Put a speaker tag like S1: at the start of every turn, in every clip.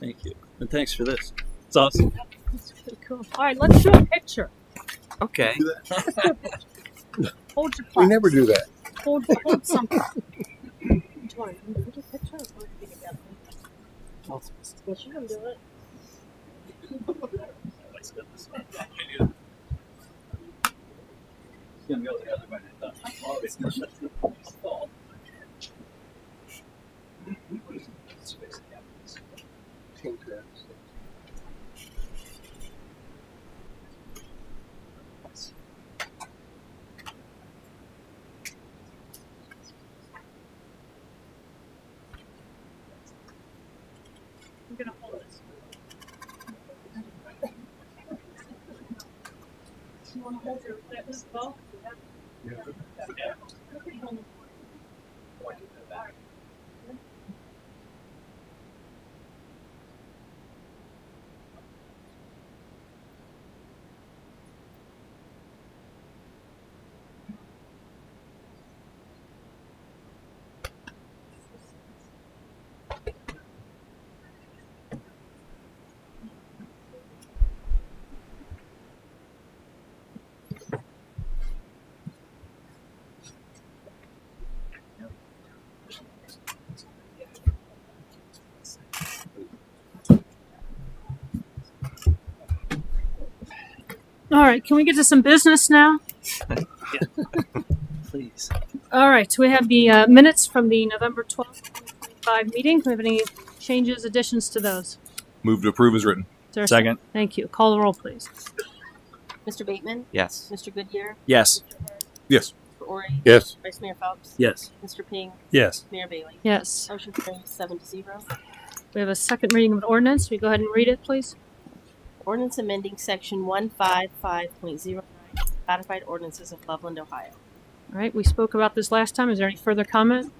S1: Thank you. And thanks for this. It's awesome.
S2: That's really cool. All right, let's do a picture.
S1: Okay.
S2: Hold your plaque.
S3: We never do that.
S2: Hold, hold something. Which one? You want to do a picture or do you want to be together? Yes, you can do it.
S1: It's gonna go the other way.
S2: I'm gonna hold this. You wanna hold your that as well? Yeah. Okay, hold it. All right, can we get to some business now?
S1: Please.
S2: All right, so we have the uh, minutes from the November 12th, 2025 meeting. Do we have any changes, additions to those?
S4: Move to approve is written.
S2: Is there a
S1: Second.
S2: Thank you. Call the roll, please.
S5: Mr. Bateman,
S1: Yes.
S5: Mr. Goodyear,
S1: Yes.
S4: Yes.
S5: Mr. Ori,
S3: Yes.
S5: Vice Mayor Phelps,
S1: Yes.
S5: Mr. Ping,
S4: Yes.
S5: Mayor Bailey.
S2: Yes.
S5: Motion carries seven to zero.
S2: We have a second reading of an ordinance. Will you go ahead and read it, please?
S5: Ordinance amending section one five five point zero nine, codified ordinances of Loveland, Ohio.
S2: All right, we spoke about this last time. Is there any further comment?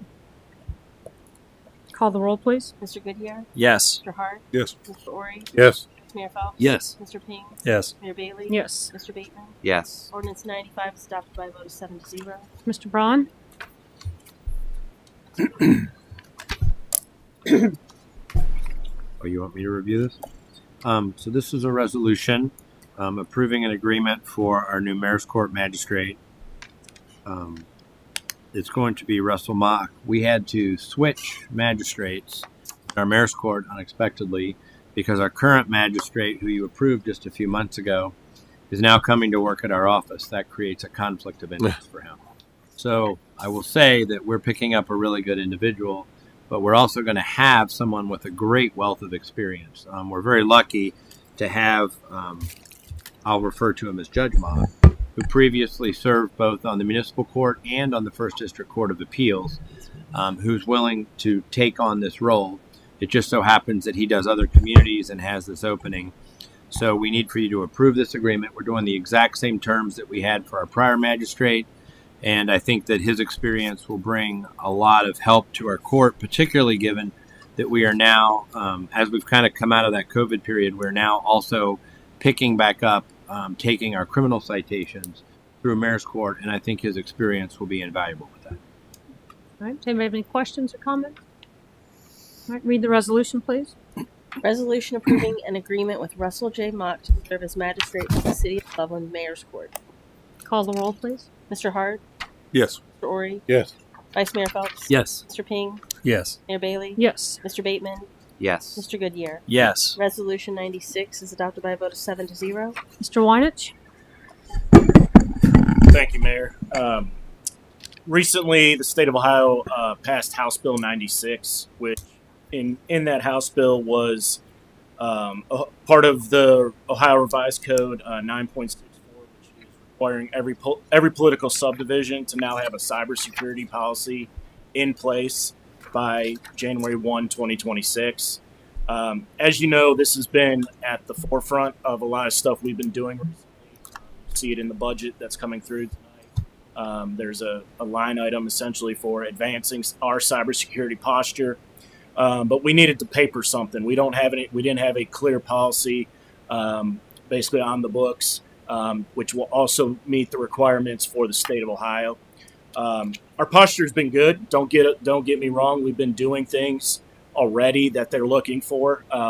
S2: Call the roll, please.
S5: Mr. Goodyear,
S1: Yes.
S5: Mr. Hart,
S4: Yes.
S5: Mr. Ori,
S3: Yes.
S5: Vice Mayor Phelps,
S1: Yes.
S5: Mr. Ping,
S4: Yes.
S5: Mayor Bailey.
S2: Yes.
S5: Mr. Bateman,
S1: Yes.
S5: ordinance ninety-five is adopted by a vote of seven to zero.
S2: Mr. Braun?
S6: Oh, you want me to review this? Um, so this is a resolution um, approving an agreement for our new mayor's court magistrate. Um, it's going to be Russell Mock. We had to switch magistrates in our mayor's court unexpectedly because our current magistrate, who you approved just a few months ago, is now coming to work at our office. That creates a conflict of interest for him. So I will say that we're picking up a really good individual but we're also going to have someone with a great wealth of experience. Um, we're very lucky to have, um, I'll refer to him as Judge Mock, who previously served both on the municipal court and on the First District Court of Appeals, um, who's willing to take on this role. It just so happens that he does other communities and has this opening. So we need for you to approve this agreement. We're doing the exact same terms that we had for our prior magistrate. And I think that his experience will bring a lot of help to our court, particularly given that we are now, um, as we've kind of come out of that COVID period, we're now also picking back up, um, taking our criminal citations through mayor's court. And I think his experience will be invaluable with that.
S2: All right, does anybody have any questions or comments? All right, read the resolution, please.
S5: Resolution approving an agreement with Russell J. Mock to serve as magistrate for the city of Loveland Mayor's Court.
S2: Call the roll, please.
S5: Mr. Hart,
S4: Yes.
S5: Mr. Ori,
S3: Yes.
S5: Vice Mayor Phelps,
S1: Yes.
S5: Mr. Ping,
S4: Yes.
S5: Mayor Bailey,
S2: Yes.
S5: Mr. Bateman,
S1: Yes.
S5: Mr. Goodyear.
S1: Yes.
S5: Resolution 96 is adopted by a vote of 7 to 0.
S2: Mr. Weinich?
S7: Thank you, Mayor. Um, recently, the state of Ohio uh, passed House Bill 96, which in in that House bill was um, a, part of the Ohio Revised Code uh, 9.64, which is requiring every po- every political subdivision to now have a cybersecurity policy in place by January 1, 2026. Um, as you know, this has been at the forefront of a lot of stuff we've been doing recently see it in the budget that's coming through tonight. Um, there's a, a line item essentially for advancing our cybersecurity posture, um, but we needed to paper something. We don't have any. We didn't have a clear policy, um, basically on the books, um, which will also meet the requirements for the state of Ohio. Um, our posture's been good. Don't get don't get me wrong. We've been doing things already that they're looking for. Um,